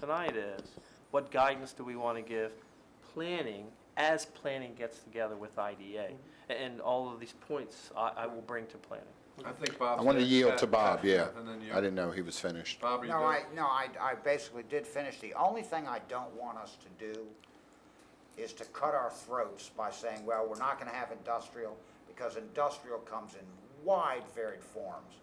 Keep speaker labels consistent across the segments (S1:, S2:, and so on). S1: tonight is, what guidance do we want to give planning as planning gets together with IDA? A- And all of these points I, I will bring to planning.
S2: I think Bob.
S3: I wanted to
S2: said-
S3: yield
S2: Pat-
S3: to Bob,
S2: Pat,
S3: yeah.
S2: And then you.
S3: I didn't know he was finished.
S2: Bob, are you
S4: No, I,
S2: done?
S4: no, I, I basically did finish. The only thing I don't want us to do is to cut our throats by saying, well, we're not gonna have industrial, because industrial comes in wide varied forms.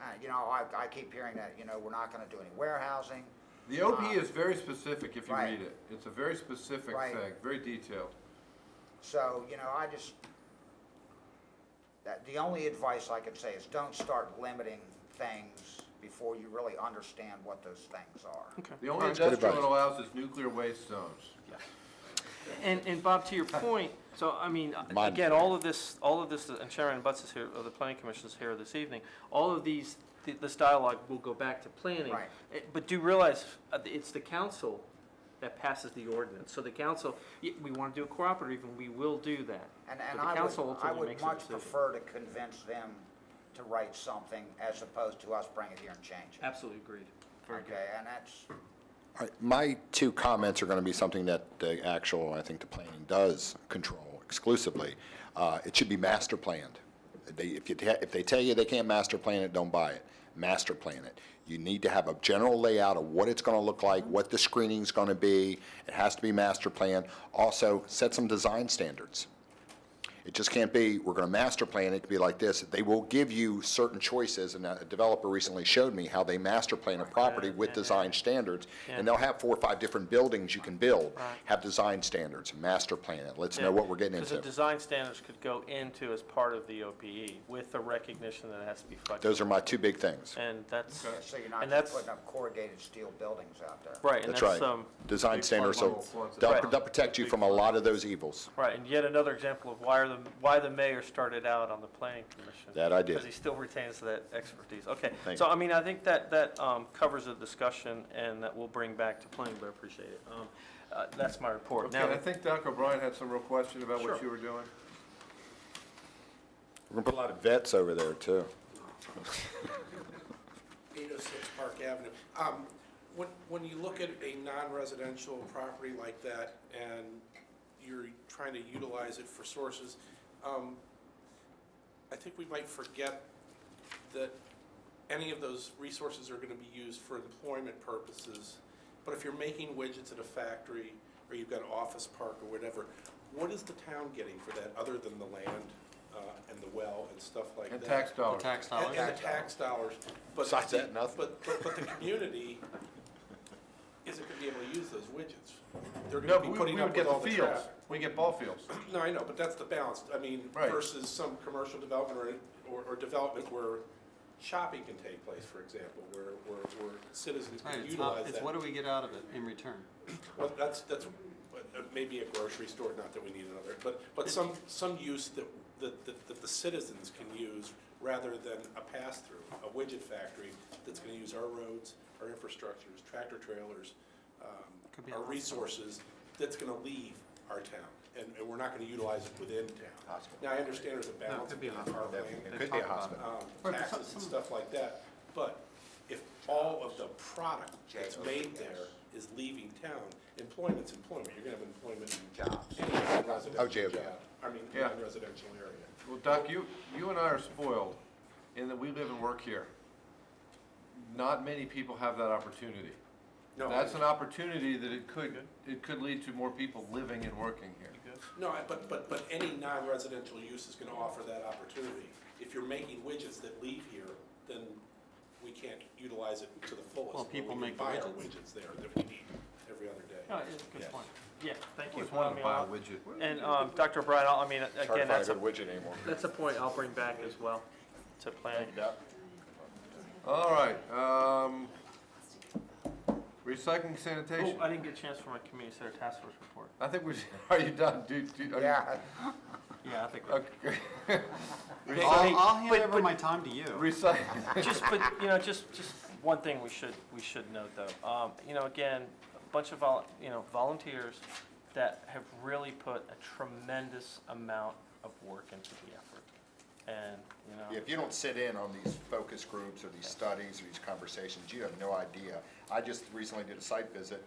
S4: Uh, you know, I, I keep hearing that, you know, we're not gonna do any warehousing,
S2: The OP is very specific if you
S4: Right.
S2: read it. It's a very specific
S4: Right.
S2: thing, very detailed.
S4: so, you know, I just, that, the only advice I could say is don't start limiting things before you really understand what those things are.
S2: The only
S3: good
S2: industrial it
S3: advice.
S2: allows is nuclear waste zones.
S1: And, and Bob, to your point, so, I mean,
S3: Mine.
S1: again, all of this, all of this, and Sharon Butts is here, or the planning commission is here this evening, all of these, th- this dialogue will go back to planning.
S4: Right.
S1: Eh, But do realize, uh, it's the council that passes the ordinance, so the council, y- we want to do a cooperative, and we will do that.
S4: And,
S1: But
S4: and
S1: the
S4: I
S1: council
S4: would, I
S1: ultimately
S4: would
S1: makes the
S4: much
S1: decision.
S4: prefer to convince them to write something as opposed to us bringing it here and changing. it.
S1: Absolutely agreed. Very good.
S4: Okay, and that's,
S3: I- My two comments are going to be something that the actual, I think the planning does control exclusively. Uh, It should be master planned. They, if you, te- if they tell you they can't master plan it, don't buy it. Master plan it. You need to have a general layout of what it's going to look like, what the screening's going to be. It has to be master planned. Also, set some design standards. It just can't be, we're going to master plan it to be like this. They will give you certain choices, and a developer recently showed me how they master plan a property with design standards, and they'll have four or five different buildings you can build, have design standards, master plan it, let's know what we're getting
S1: Because the
S3: into.
S1: design standards could go into as part of the OPE with the recognition that it has to be flexible.
S3: Those are my two big things.
S1: And that's,
S4: so you're
S1: And
S4: not
S1: that's-
S4: just putting up corrugated steel buildings out there.
S1: right, and
S3: That's
S1: that's,
S3: right.
S1: um,
S3: Design standards,
S2: flood
S3: will-
S2: floods.
S3: they'll
S1: Right.
S3: they'll protect you from a lot of those evils.
S1: right, and yet another example of why are the, why the mayor started out on the planning commission.
S3: That I did.
S1: Because he still retains that expertise, okay.
S3: Thank
S1: So,
S3: you.
S1: I mean, I think that, that, um, covers the discussion and that we'll bring back to planning, but I appreciate it. Um, uh, that's my report.
S2: Okay,
S1: Now,
S2: and I think Doc O'Brien had some real question about what
S1: Sure.
S2: you were doing.
S3: We're going to put a lot of vets over there, too.
S5: 806 Park Avenue. Um, When, when you look at a non-residential property like that and you're trying to utilize it for sources, um, I think we might forget that any of those resources are gonna be used for employment purposes. But if you're making widgets at a factory, or you've got an office park or whatever, what is the town getting for that, other than the land uh, and the well and stuff like that?
S2: And tax dollars.
S6: Oh,
S5: And and the tax dollars, but.
S3: Besides that, nothing.
S5: But, but, but the community isn't gonna be able to use those widgets. They're
S2: No,
S5: gonna
S2: but
S5: be
S2: we,
S5: putting
S2: we would
S5: up with
S2: get the
S5: all the
S2: fields.
S5: traffic.
S2: We get ball fields.
S5: No, I know, but that's the balance, I mean,
S2: Right.
S5: versus some commercial development or, or, or development where shopping can take place, for example, where, where, where citizens
S6: Right,
S5: can
S6: it's not,
S5: utilize
S6: it's
S5: that.
S6: what do we get out of it in return?
S5: Well, that's, that's, but, uh, maybe a grocery store, not that we need another, but, but some, some use that, that, that- that the citizens can use rather than a pass-through, a widget factory that's gonna use our roads, our infrastructures, tractor trailers,
S6: Could be
S5: um,
S6: a
S5: our
S6: hospital.
S5: resources, that's gonna leave our town, and, and we're not gonna utilize it within town. Now, I understand there's a balance
S6: could be a
S5: between
S6: hospital,
S5: our land
S3: It could be a hospital.
S5: um, taxes and stuff like that. But if all of the product that's made there is leaving town, employment's employment, you're gonna have employment in jobs. any
S3: Oh, J O B.
S5: residential job, I mean,
S2: Yeah.
S5: non-residential area.
S2: Well, Doc, you, you and I are spoiled in that we live and work here. Not many people have that opportunity.
S5: No,
S2: That's an opportunity that it could, it could lead to more people living and working here.
S5: No, I- but, but, but any non-residential use is gonna offer that opportunity. If you're making widgets that leave here, then we can't utilize it to the fullest.
S6: Well, people
S5: We can
S6: make the
S5: Buy our
S6: widgets.
S5: widgets there that we need every other day.
S1: No, it's a good point. Yeah, thank
S2: I
S1: you.
S2: Always wanted to buy a
S1: I mean,
S2: widget.
S1: And, um, Dr. O'Brien, I I mean, again, that's a,
S3: widget anymore.
S1: that's a point I'll bring back as well to planning.
S2: All right, um, recycling
S1: Oh,
S2: sanitation.
S1: I didn't get a chance for my community center task force report.
S2: I think we, should- are you done? Do, do, are you-
S4: Yeah,
S1: Yeah, I think.
S2: Okay.
S6: I'll, I'll
S1: but-
S6: hand over
S1: but-
S6: my time to you.
S2: Recycling,
S1: Just, but, you know, just, just one thing we should, we should note though, um, you know, again, a bunch of vol, you know, volunteers that have really put a tremendous amount of work into the effort. and, you know.
S3: If you don't sit in on these focus groups or these studies or these conversations, you have no idea. I just recently did a site visit